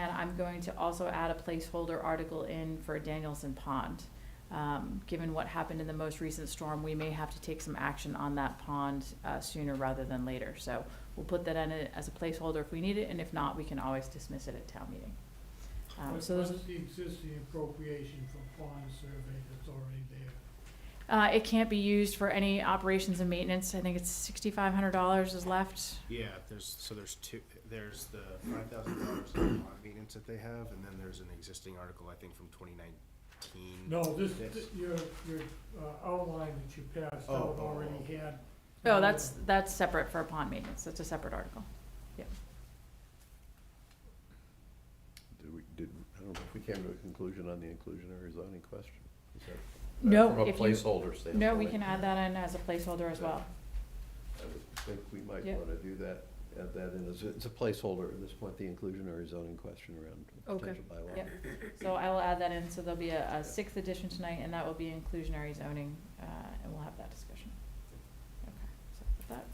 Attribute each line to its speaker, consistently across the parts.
Speaker 1: I'm going to also add a placeholder article in for Danielson Pond. Um, given what happened in the most recent storm, we may have to take some action on that pond, uh, sooner rather than later. So we'll put that in it as a placeholder if we need it, and if not, we can always dismiss it at town meeting. Um,
Speaker 2: What-
Speaker 1: so those,
Speaker 2: What's the existing appropriation for pond survey that's already there?
Speaker 1: uh, it can't be used for any operations and maintenance. I think it's sixty-five hundred dollars is left.
Speaker 3: Yeah, there's, so there's two, there's the five thousand dollars in bond maintenance that they have, and then there's an existing article, I think, from twenty nineteen.
Speaker 2: No, this,
Speaker 3: Hmm. Yes.
Speaker 2: th- your, your uh, outline that you passed
Speaker 3: Oh,
Speaker 2: out
Speaker 3: oh,
Speaker 2: already had.
Speaker 1: Oh, that's, that's separate for pond maintenance. That's a separate article.
Speaker 4: Did we, did, I don't know if we came to a conclusion on the inclusionary zoning question? Is that- uh,
Speaker 1: No,
Speaker 4: From a
Speaker 1: if you-
Speaker 4: placeholder standpoint.
Speaker 1: No, we can add that in as a placeholder as well.
Speaker 4: I would think we might
Speaker 1: Yeah.
Speaker 4: want to do that, add that in, as a- it's a placeholder at this point, the inclusionary zoning question around a
Speaker 1: Okay.
Speaker 4: potential bylaw.
Speaker 1: Yep. So I will add that in, so there'll be a, a sixth edition tonight, and that will be inclusionary zoning, uh, and we'll have that discussion. Okay, so with that,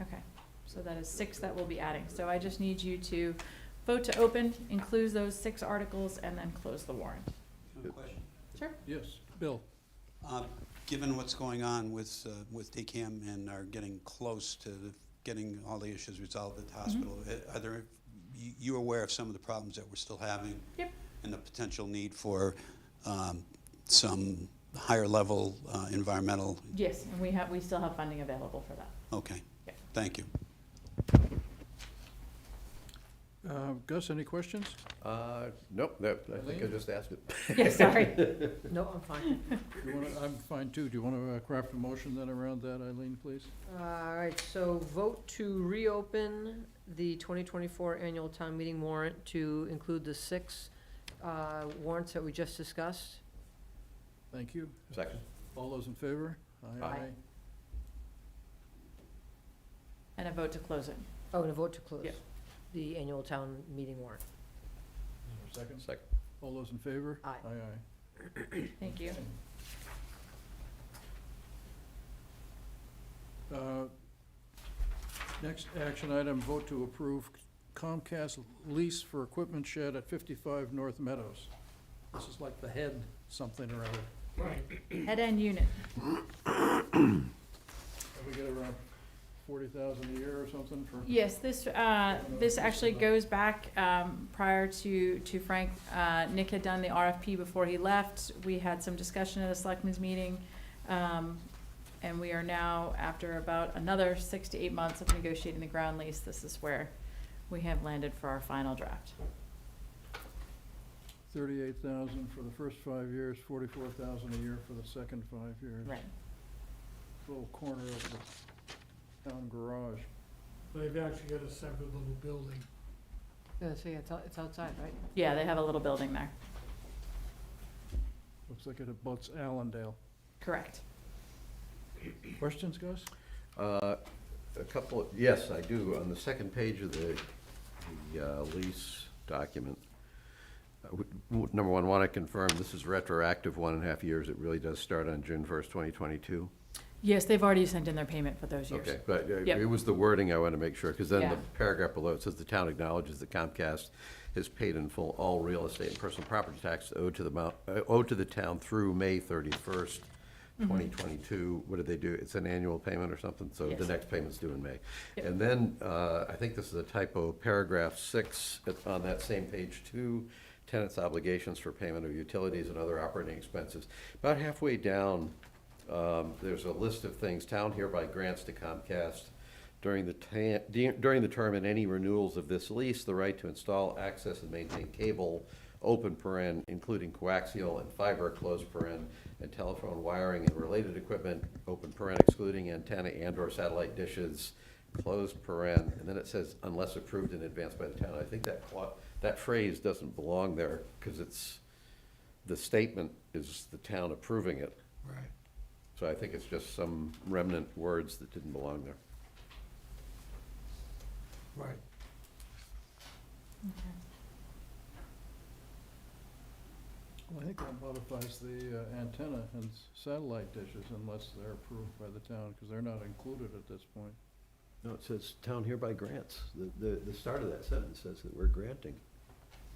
Speaker 1: okay, so that is six that we'll be adding, so I just need you to vote to open, include those six articles, and then close the warrant.
Speaker 5: One question.
Speaker 1: Sure,
Speaker 6: Yes, Bill.
Speaker 5: Uh, Given what's going on with, uh, with DCAM and are getting close to getting all the issues resolved at the hospital, uh, are there, you- you aware of some of the problems that we're still having?
Speaker 1: Yep.
Speaker 5: And the potential need for um, some higher-level environmental,
Speaker 1: yes, and we have, we still have funding available for that.
Speaker 5: okay.
Speaker 1: Yep.
Speaker 5: Thank you.
Speaker 6: Uh, Gus, any questions?
Speaker 4: Uh, nope, that, I think I
Speaker 6: Elaine?
Speaker 4: just asked it.
Speaker 1: Yeah, sorry.
Speaker 7: No, I'm fine.
Speaker 6: Do you wanna- I'm fine too. Do you want to craft a motion then around that, Eileen, please?
Speaker 7: All right, so vote to reopen the 2024 annual town meeting warrant to include the six uh, warrants that we just discussed.
Speaker 6: Thank you.
Speaker 4: Second.
Speaker 6: All those in favor?
Speaker 4: Aye.
Speaker 1: And a vote to close it.
Speaker 7: Oh, and a vote to close
Speaker 1: Yeah.
Speaker 7: the annual town meeting warrant.
Speaker 6: Second.
Speaker 4: Second.
Speaker 6: All those in favor?
Speaker 7: Aye.
Speaker 6: Aye, aye.
Speaker 1: Thank you.
Speaker 6: Uh, Next action item, vote to approve Comcast lease for equipment shed at 55 North Meadows. This is like the head something or other.
Speaker 2: Right,
Speaker 1: Head end unit,
Speaker 6: And we get around 40,000 a year or something for,
Speaker 1: Yes, this, uh, this actually goes back, um, prior to, to Frank, uh, Nick had done the RFP before he left. We had some discussion at a selectmen's meeting, um, and we are now, after about another six to eight months of negotiating the ground lease, this is where we have landed for our final draft.
Speaker 6: 38,000 for the first five years, 44,000 a year for the second five years.
Speaker 1: Right,
Speaker 6: Little corner of the town garage.
Speaker 2: they've actually got a separate little building.
Speaker 7: Yeah, so yeah, it's out- it's outside, right?
Speaker 1: yeah, they have a little building there,
Speaker 6: Looks like it abuts Allendale.
Speaker 1: correct.
Speaker 6: Questions, Gus?
Speaker 4: Uh, A couple, yes, I do. On the second page of the, the uh, lease document, I would- would- number one, want to confirm, this is retroactive one and a half years. It really does start on June first, twenty twenty-two.
Speaker 1: Yes, they've already sent in their payment for those years.
Speaker 4: Okay, but uh,
Speaker 1: Yep.
Speaker 4: it was the wording I want to make sure, because then the
Speaker 1: Yeah.
Speaker 4: paragraph below, it says the town acknowledges that Comcast has paid in full all real estate and personal property tax owed to the mount, uh, owed to the town through May thirty-first,
Speaker 1: Mm-hmm.
Speaker 4: twenty twenty-two. What did they do? It's an annual payment or something, so the
Speaker 1: Yes.
Speaker 4: next payment's due in May.
Speaker 1: Yep.
Speaker 4: And then, uh, I think this is a typo, paragraph six at- on that same page two, tenants' obligations for payment of utilities and other operating expenses. About halfway down, um, there's a list of things, town hereby grants to Comcast during the ta- de- during the term and any renewals of this lease, the right to install, access, and maintain cable, open paren, including coaxial and fiber, closed paren, and telephone wiring and related equipment, open paren excluding antenna and/or satellite dishes, closed paren, and then it says unless approved in advance by the town. I think that cla- that phrase doesn't belong there, because it's, the statement is the town approving it.
Speaker 5: Right.
Speaker 4: So I think it's just some remnant words that didn't belong there.
Speaker 2: Right.
Speaker 1: Okay.
Speaker 6: Well, I think that modifies the uh, antenna and s- satellite dishes unless they're approved by the town, because they're not included at this point.
Speaker 4: No, it says town hereby grants. The, the, the start of that sentence says that we're granting.